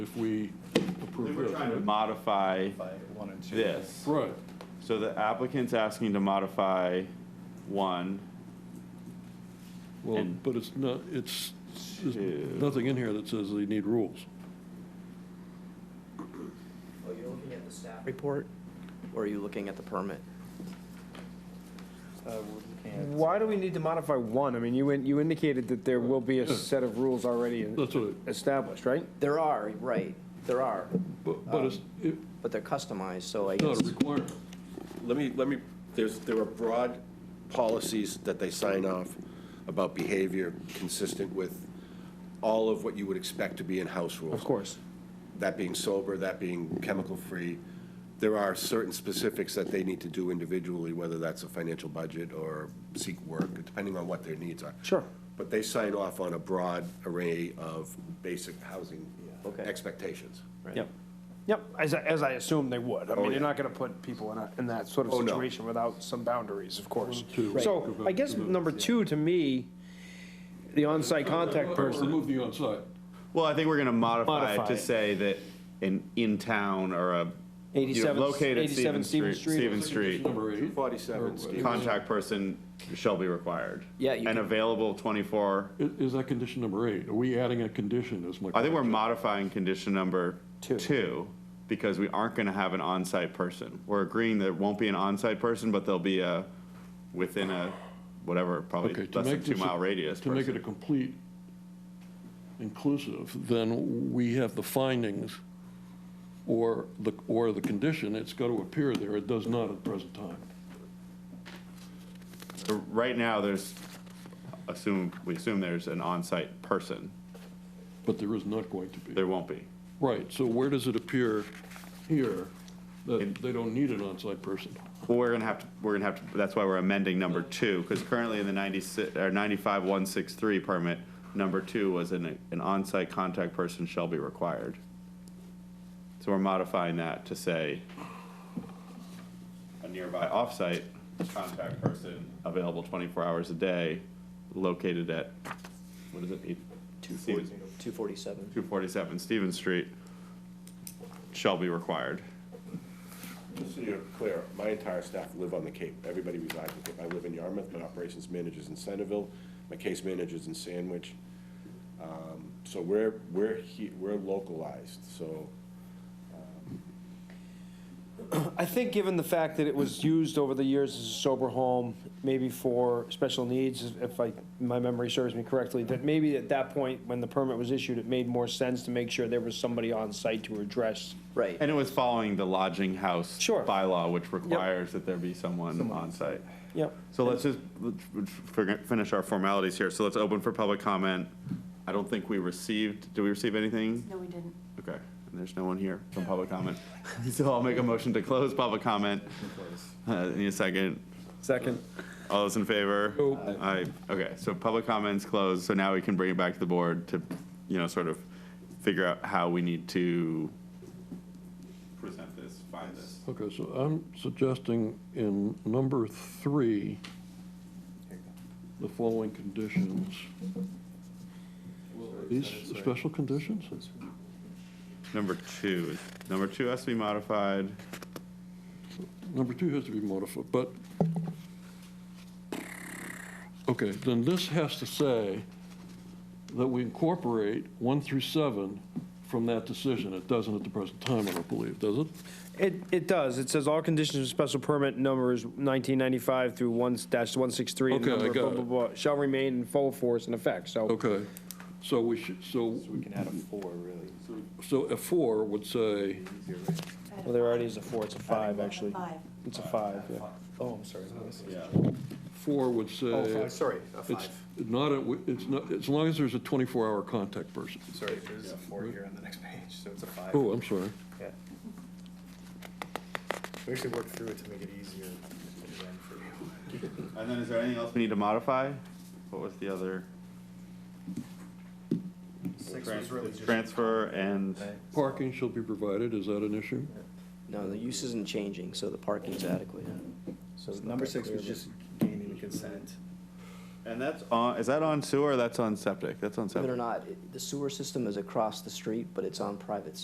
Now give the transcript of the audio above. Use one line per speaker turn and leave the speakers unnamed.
if we
We
approve
were
this.
trying to
right?
modify
by one and two.
this.
Right,
So the applicant's asking to modify one.
well,
And-
but it's not, it's, there's
Two.
nothing in here that says they need rules.
Are you looking at the staff report, or are you looking at the permit?
Uh, we're looking at-
Why do we need to modify one? I mean, you, in- you indicated that there will be a
Yeah.
set of rules already
That's what,
established, right?
There are, right, there are,
it- but, but
Um,
it's, it's
but they're customized, so I
not
guess,
a requirement.
Let me, let me, there's, there are broad policies that they sign off about behavior consistent with all of what you would expect to be in house rules.
Of course.
That being sober, that being chemical-free. There are certain specifics that they need to do individually, whether that's a financial budget or seek work, depending on what their needs are.
Sure.
But they sign off on a broad array of basic housing
Okay.
expectations.
Yep.
Yep, as, I- as I assume they would. I mean,
yeah.
you're not going to put people in a, in that sort of
Oh, no.
situation without some boundaries, of course.
Two.
So I guess number two, to me, the on-site contact person,
Remove the onsite.
Well, I think we're gonna modify it
Modify
to
it.
say that an in-town or a. you know,
87
located at
87 Stevens Street.
Stevens Street,
Number eight. Or-
Forty-seven, Steve.
contact person shall be required.
Yeah, you
And
can-
available twenty-four,
i- Is that condition number eight? Are we adding a condition as my?
I think we're modifying condition number two, because we aren't gonna have an on-site person. We're agreeing there won't be an on-site person, but there'll be a, within a, whatever,
Okay,
probably
to
less than
make this a-
two-mile radius
To make it a
person.
complete inclusive, then we have the findings or the, or the condition, it's got to appear there, it does not at the present time.
So Right now, there's, assume, we assume there's an on-site person.
But there is not going to be.
There won't be.
Right, so where does it appear here that they don't need an on-site person?
Well, we're gonna have to, we're gonna have to, that's why we're amending number two, because currently in the ninety-six, or ninety-five one six three permit, number two was an, an onsite contact person shall be required. So we're modifying that to say a nearby offsite contact person available twenty-four hours a day, located at, what is it? eight- Stevens-
247.
247 Stevens Street, shall be required.
Just so you're clear, my entire staff live on the Cape. Everybody resides in the Cape. I live in Yarmouth, my operations manager's in Centerville, my case manager's in Sandwich. Um, So we're, we're he, we're localized, so
I think given the fact that it was used over the years as a sober home, maybe for special needs, if I, my memory serves me correctly, that maybe at that point, when the permit was issued, it made more sense to make sure there was somebody on site to address
Right,
And it was following the lodging house
Sure.
bylaw, which requires that there be someone on site.
Yep.
So let's just let's- let's figure- finish our formalities here. So let's open for public comment. I don't think we received, did we receive anything?
No, we didn't.
Okay, and there's no one here from public comment. So I'll make a motion to close public comment. Uh, Need a second?
Second.
All those in favor? Aye. Okay, so public comments closed, so now we can bring it back to the board to, you know, sort of figure out how we need to present this, find this.
Okay, so I'm suggesting in number three, the following conditions. These special conditions?
Number two, number two has to be modified.
Number two has to be modified, but, okay, then this has to say that we incorporate one through seven from that decision. It doesn't at the present time, I don't believe, does it?
It, it does. It says all conditions of special permit numbers 1995 through 1 dash 163. and
Okay, I
number
got
blah,
it.
blah, blah, Shall remain in full force and effect, so.
Okay, so we should, so,
So we can add a four, really.
so a four would say,
Well, there already is a four, it's a five, actually.
Five.
It's a five, yeah.
Oh, I'm sorry.
four would say.
Oh, five, sorry, a
It's
five.
not, a- it's not, as long as there's a 24-hour contact person.
Sorry, there's a four here on the next page, so it's a five.
Oh, I'm sorry.
Yeah. We actually worked through it to make it easier at the end for you.
And then is there anything else we need to modify? What was the other?
Six was really just.
Transfer and,
Parking shall be provided, is that an issue?
no, the use isn't changing, so the parking's adequate.
So number six was just gaining the consent.
And that's on, is that on sewer or that's on septic? That's on septic.
Believe it or not, it- the sewer system is across the street, but it's on private